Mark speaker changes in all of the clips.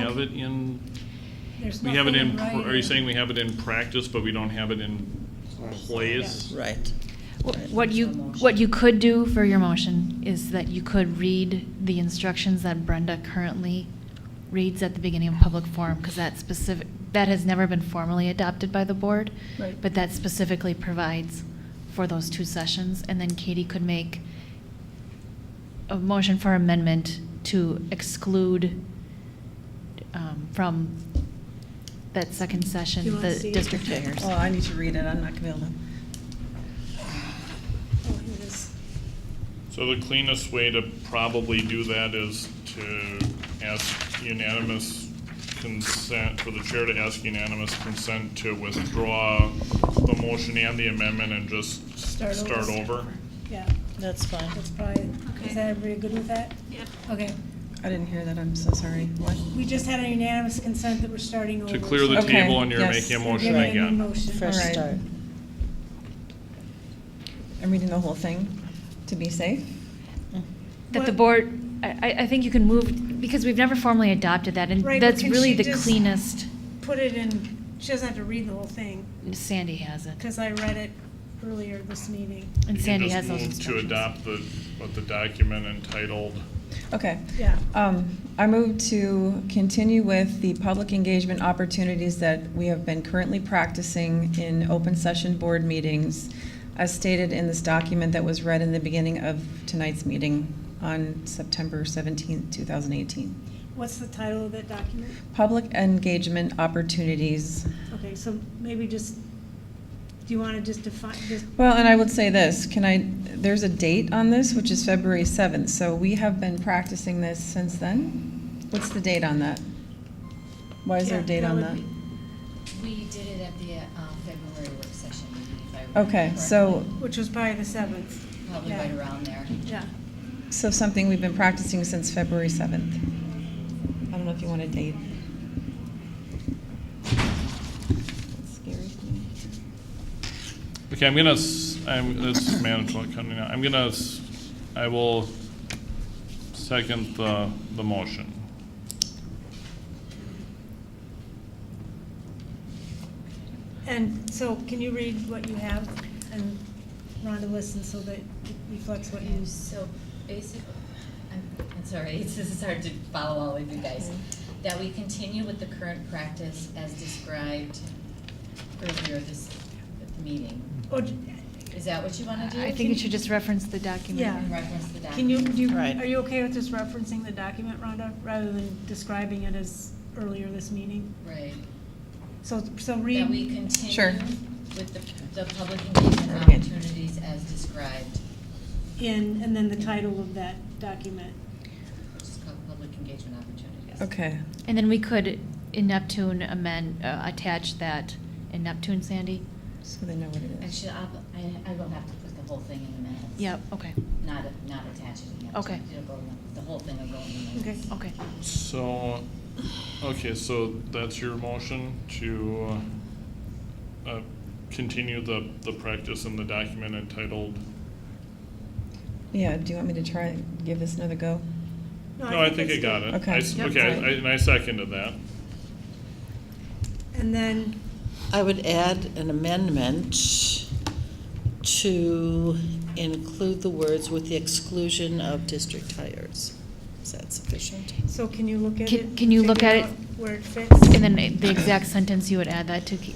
Speaker 1: have it in,
Speaker 2: There's
Speaker 1: we have it
Speaker 2: nothing
Speaker 1: in, pr- are you
Speaker 2: writing.
Speaker 1: saying we have it in practice, but we don't have it in place?
Speaker 3: Right.
Speaker 4: Wh- What you, what you could do for your motion is that you could read the instructions that Brenda currently reads at the beginning of public forum, because that specific, that has never been formally adopted by the board.
Speaker 2: Right.
Speaker 4: But that specifically provides for those two sessions, and then Katie could make a motion for amendment to exclude um, from that second
Speaker 2: You
Speaker 4: session,
Speaker 2: wanna
Speaker 4: the
Speaker 2: see it?
Speaker 4: district chairs.
Speaker 3: Oh, I need to read it, I'm not gonna be able to.
Speaker 2: Oh, here it is.
Speaker 1: So the cleanest way to probably do that is to ask unanimous consent, for the chair to ask unanimous consent to withdraw the motion and the amendment and just s-
Speaker 2: Start over.
Speaker 1: start over.
Speaker 2: Yeah,
Speaker 3: That's fine.
Speaker 2: that's probably,
Speaker 5: Okay.
Speaker 2: is that everybody good with that?
Speaker 5: Yep.
Speaker 2: Okay,
Speaker 3: I didn't hear that, I'm so sorry. What?
Speaker 2: we just had a unanimous consent that we're starting over.
Speaker 1: To clear the
Speaker 3: Okay,
Speaker 1: table and you're
Speaker 3: yes.
Speaker 1: making a
Speaker 2: We're
Speaker 1: motion
Speaker 2: giving a new
Speaker 1: again.
Speaker 2: motion.
Speaker 3: Fresh
Speaker 2: All right.
Speaker 3: start. I'm reading the whole thing to be safe. Mm.
Speaker 4: That the
Speaker 2: What-
Speaker 4: board, I, I I think you can move, because we've never formally adopted that, and
Speaker 2: Right, but
Speaker 4: that's
Speaker 2: can
Speaker 4: really
Speaker 2: she
Speaker 4: the
Speaker 2: just-
Speaker 4: cleanest,
Speaker 2: Put it in, she doesn't have to read the whole thing,
Speaker 4: Sandy has it,
Speaker 2: because I read it earlier this meeting.
Speaker 1: You
Speaker 4: and
Speaker 1: can
Speaker 4: Sandy
Speaker 1: just
Speaker 4: has those
Speaker 1: move
Speaker 4: instructions.
Speaker 1: To adopt the, what the document entitled
Speaker 3: Okay.
Speaker 2: Yeah.
Speaker 3: Um, I move to continue with the public engagement opportunities that we have been currently practicing in open session board meetings, as stated in this document that was read in the beginning of tonight's meeting on September 17, 2018.
Speaker 2: What's the title of that document?
Speaker 3: Public engagement opportunities.
Speaker 2: Okay, so maybe just, do you want to just define, just,
Speaker 3: Well, and I would say this, can I, there's a date on this, which is February 7th, so we have been practicing this since then? What's the date on that? Why is there a
Speaker 2: Yeah,
Speaker 3: date
Speaker 2: that
Speaker 3: on
Speaker 2: would
Speaker 3: that?
Speaker 2: be-
Speaker 6: We did it at the uh, February work session, meeting, if I remember
Speaker 3: Okay, so,
Speaker 6: correctly.
Speaker 2: which was probably the seventh?
Speaker 6: Probably right around there.
Speaker 2: Yeah.
Speaker 3: so something we've been practicing since February 7th. I don't know if you want a date. That scares me.
Speaker 1: Okay, I'm gonna, s- I'm, this is management coming out, I'm gonna, s- I will second the, the motion.
Speaker 2: And so can you read what you have and Rhonda listen so that it reflects what you
Speaker 6: Okay, so basically, I'm, I'm sorry, it's, this is hard to follow all of you guys. That we continue with the current practice as described earlier this, at the meeting.
Speaker 2: Or d-
Speaker 6: Is that what you want to do?
Speaker 4: I think it should just reference the document.
Speaker 2: Yeah.
Speaker 6: In reference to the
Speaker 2: Can you,
Speaker 6: document.
Speaker 2: do you,
Speaker 3: Right.
Speaker 2: are you okay with just referencing the document, Rhonda, rather than describing it as earlier this meeting?
Speaker 6: Right.
Speaker 2: So, so
Speaker 6: That we
Speaker 2: read,
Speaker 6: continue
Speaker 3: Sure.
Speaker 6: with the, the public engagement
Speaker 3: Okay.
Speaker 6: opportunities as described.
Speaker 2: in, and then the title of that document.
Speaker 6: Just called public engagement opportunities.
Speaker 3: Okay,
Speaker 4: And then we could, in Neptune, amend, uh, attach that in Neptune, Sandy?
Speaker 3: so they know what it is.
Speaker 6: Actually, I'll, I, I will have to put the whole thing in the minutes.
Speaker 4: Yep, okay,
Speaker 6: Not, not attach it again.
Speaker 4: Okay.
Speaker 6: It'll go in the, the whole thing will go in the minutes.
Speaker 2: Okay.
Speaker 4: okay.
Speaker 1: So, okay, so that's your motion to, uh, continue the, the practice in the document entitled?
Speaker 3: Yeah, do you want me to try, give this another go?
Speaker 1: No, I think I
Speaker 2: it's
Speaker 1: got
Speaker 2: good.
Speaker 1: it.
Speaker 3: Okay.
Speaker 1: I s-
Speaker 3: Yep.
Speaker 1: Okay, I- and I seconded that.
Speaker 2: And then,
Speaker 7: I would add an amendment to include the words "with the exclusion of district hires." Is that sufficient?
Speaker 2: so can you look at
Speaker 4: Can-
Speaker 2: it?
Speaker 4: can you look
Speaker 2: figure
Speaker 4: at it?
Speaker 2: out Where it fits?
Speaker 4: And then the exact sentence, you would add that to, Ki-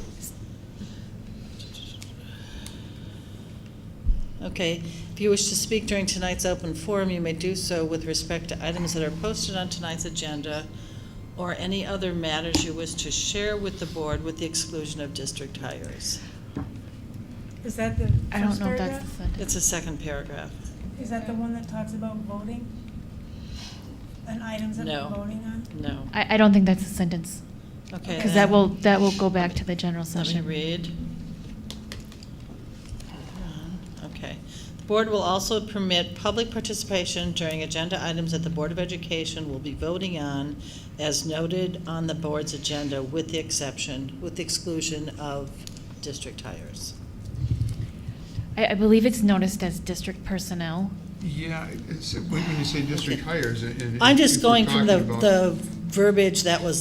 Speaker 7: Okay, if you wish to speak during tonight's open forum, you may do so with respect to items that are posted on tonight's agenda or any other matters you wish to share with the board with the exclusion of district hires.
Speaker 2: Is that the
Speaker 4: I don't
Speaker 2: first
Speaker 4: know if that's the
Speaker 2: paragraph?
Speaker 4: sentence.
Speaker 7: It's the second paragraph.
Speaker 2: Is that the one that talks about voting? And items that we're
Speaker 7: No.
Speaker 2: voting on?
Speaker 7: No.
Speaker 4: I, I don't think that's a sentence,
Speaker 7: Okay.
Speaker 4: because that
Speaker 7: then.
Speaker 4: will, that will go back to the general
Speaker 7: Let me
Speaker 4: session.
Speaker 7: read. Okay. The board will also permit public participation during agenda items that the Board of Education will be voting on as noted on the board's agenda with the exception, with the exclusion of district hires.
Speaker 4: I, I believe it's noticed as district personnel.
Speaker 8: Yeah, it's, when you say district hires, and. and
Speaker 7: I'm
Speaker 8: if
Speaker 7: just
Speaker 8: we're
Speaker 7: going from the,
Speaker 8: talking about-
Speaker 7: the verbiage that was